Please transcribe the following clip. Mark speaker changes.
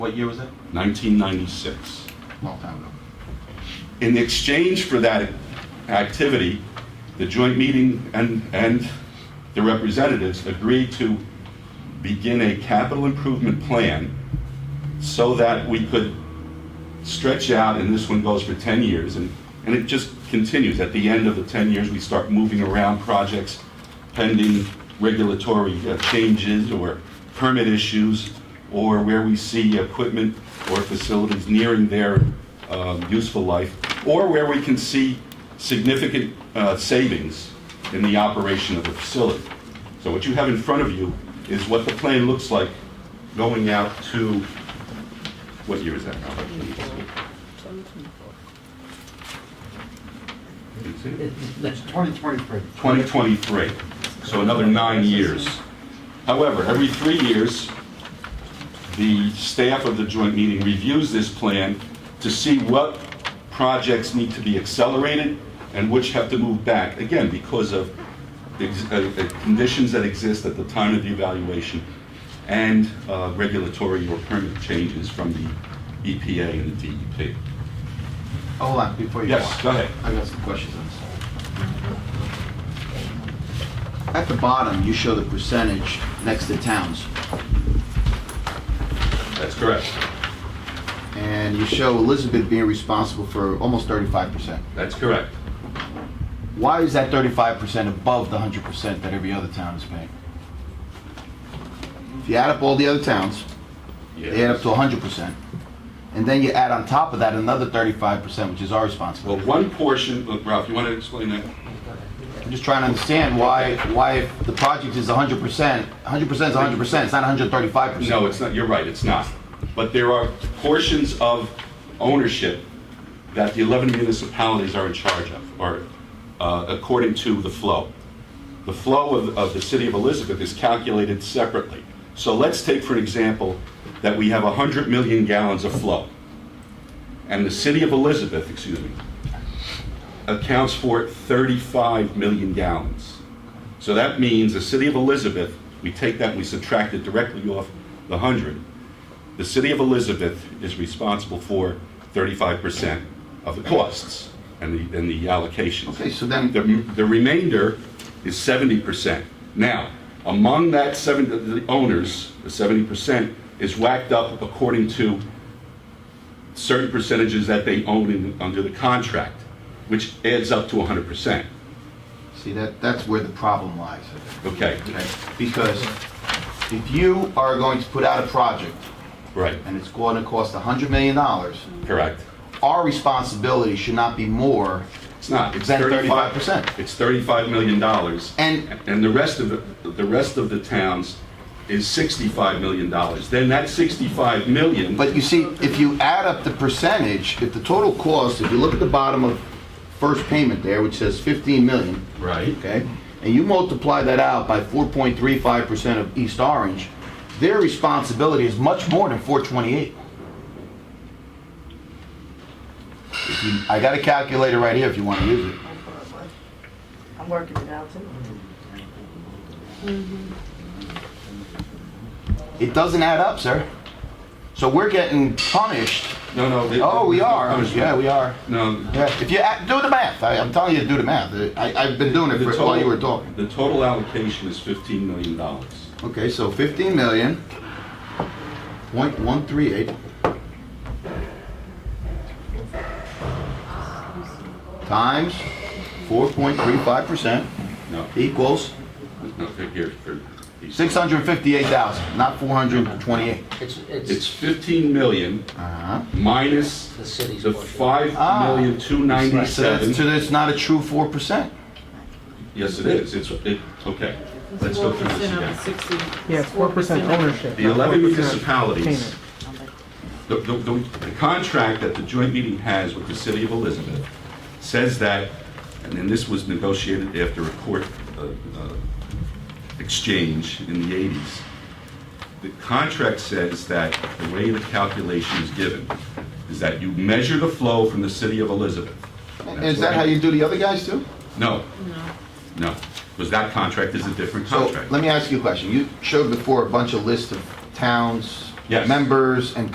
Speaker 1: What year was that?
Speaker 2: 1996.
Speaker 1: Long time ago.
Speaker 2: In exchange for that activity, the joint meeting and, and the representatives agreed to begin a capital improvement plan so that we could stretch out, and this one goes for 10 years, and, and it just continues. At the end of the 10 years, we start moving around projects pending regulatory uh, changes or permit issues, or where we see equipment or facilities nearing their um, useful life, or where we can see significant uh, savings in the operation of the facility. So what you have in front of you is what the plan looks like going out to, what year is that, Robert?
Speaker 3: It's 2023.
Speaker 2: 2023, so another nine years. However, every three years, the staff of the joint meeting reviews this plan to see what projects need to be accelerated and which have to move back, again, because of ex- uh, uh, conditions that exist at the time of the evaluation and uh, regulatory or permit changes from the EPA and the DEP.
Speaker 1: Oh, Hold on, before you go on.
Speaker 2: Yes, go ahead.
Speaker 1: I got some questions on this. At the bottom, you show the percentage next to towns,
Speaker 2: That's correct.
Speaker 1: and you show Elizabeth being responsible for almost 35%.
Speaker 2: That's correct.
Speaker 1: Why is that 35% above the 100% that every other town is paying? If you add up all the other towns, they add up to 100%, and then you add on top of that another 35%, which is our responsibility.
Speaker 2: Well, one portion, look, Ralph, you want to explain that?
Speaker 1: I'm just trying to understand why, why if the project is 100%, 100% is 100%, it's not 135%.
Speaker 2: No, it's not, you're right, it's not. But there are portions of ownership that the 11 municipalities are in charge of, or uh, according to the flow. The flow of, of the city of Elizabeth is calculated separately. So let's take for an example that we have 100 million gallons of flow. And the city of Elizabeth, excuse me, accounts for 35 million gallons. So that means the city of Elizabeth, we take that and we subtract it directly off the 100. The city of Elizabeth is responsible for 35% of the costs and the, and the allocations.
Speaker 1: Okay, so then-
Speaker 2: The, the remainder is 70%. Now, among that seven, the owners, the 70% is whacked up according to certain percentages that they own in, under the contract, which adds up to 100%.
Speaker 1: See, that, that's where the problem lies,
Speaker 2: Okay,
Speaker 1: okay? Because if you are going to put out a project
Speaker 2: right,
Speaker 1: and it's going to cost $100 million,
Speaker 2: correct.
Speaker 1: our responsibility should not be more,
Speaker 2: It's not, it's
Speaker 1: Then
Speaker 2: 35.
Speaker 1: 35%.
Speaker 2: It's 35 million dollars.
Speaker 1: And-
Speaker 2: And the rest of, the the rest of the towns is 65 million dollars. Then that 65 million,
Speaker 1: but you see, if you add up the percentage, if the total cost, if you look at the bottom of first payment there, which says 15 million,
Speaker 2: right,
Speaker 1: okay? And you multiply that out by 4.35% of East Orange, their responsibility is much more than 428. If you- I got a calculator right here if you want to use it.
Speaker 4: I'm working it out too.
Speaker 1: It doesn't add up, sir. So we're getting punished.
Speaker 2: no, no. they-
Speaker 1: Oh, we are.
Speaker 2: Punishment.
Speaker 1: Yeah, we are.
Speaker 2: No.
Speaker 1: Yeah, if you, add- do the math. I- I'm telling you to do the math. I- I've been doing it
Speaker 2: the
Speaker 1: for-
Speaker 2: total-
Speaker 1: while you were talking.
Speaker 2: The total allocation is 15 million dollars.
Speaker 1: Okay, so 15 million, point one three eight. Times 4.35%
Speaker 2: No,
Speaker 1: equals
Speaker 2: no, here, here.
Speaker 1: 658,000, not 428.
Speaker 3: It's,
Speaker 2: It's
Speaker 3: it's
Speaker 2: 15 million
Speaker 1: Uh-huh.
Speaker 2: minus
Speaker 3: the city's
Speaker 2: the
Speaker 3: portion.
Speaker 2: 5 million
Speaker 1: So that's, so
Speaker 2: 297.
Speaker 1: that's not a true 4%.
Speaker 2: Yes, it is. It's, it, okay. Let's go through this again.
Speaker 5: Yeah, it's four percent ownership.
Speaker 2: The
Speaker 5: not
Speaker 2: 11
Speaker 5: 4%
Speaker 2: municipalities,
Speaker 5: payment.
Speaker 2: the, the, the the contract that the joint meeting has with the city of Elizabeth says that, and then this was negotiated after a court uh, uh, exchange in the 80s. The contract says that the way the calculation is given is that you measure the flow from the city of Elizabeth.
Speaker 1: Is that how you do the other guys too?
Speaker 2: No. No. No, because that contract is a different
Speaker 1: So
Speaker 2: contract.
Speaker 1: let me ask you a question. You showed before a bunch of lists of towns,
Speaker 2: Yes.
Speaker 1: members, and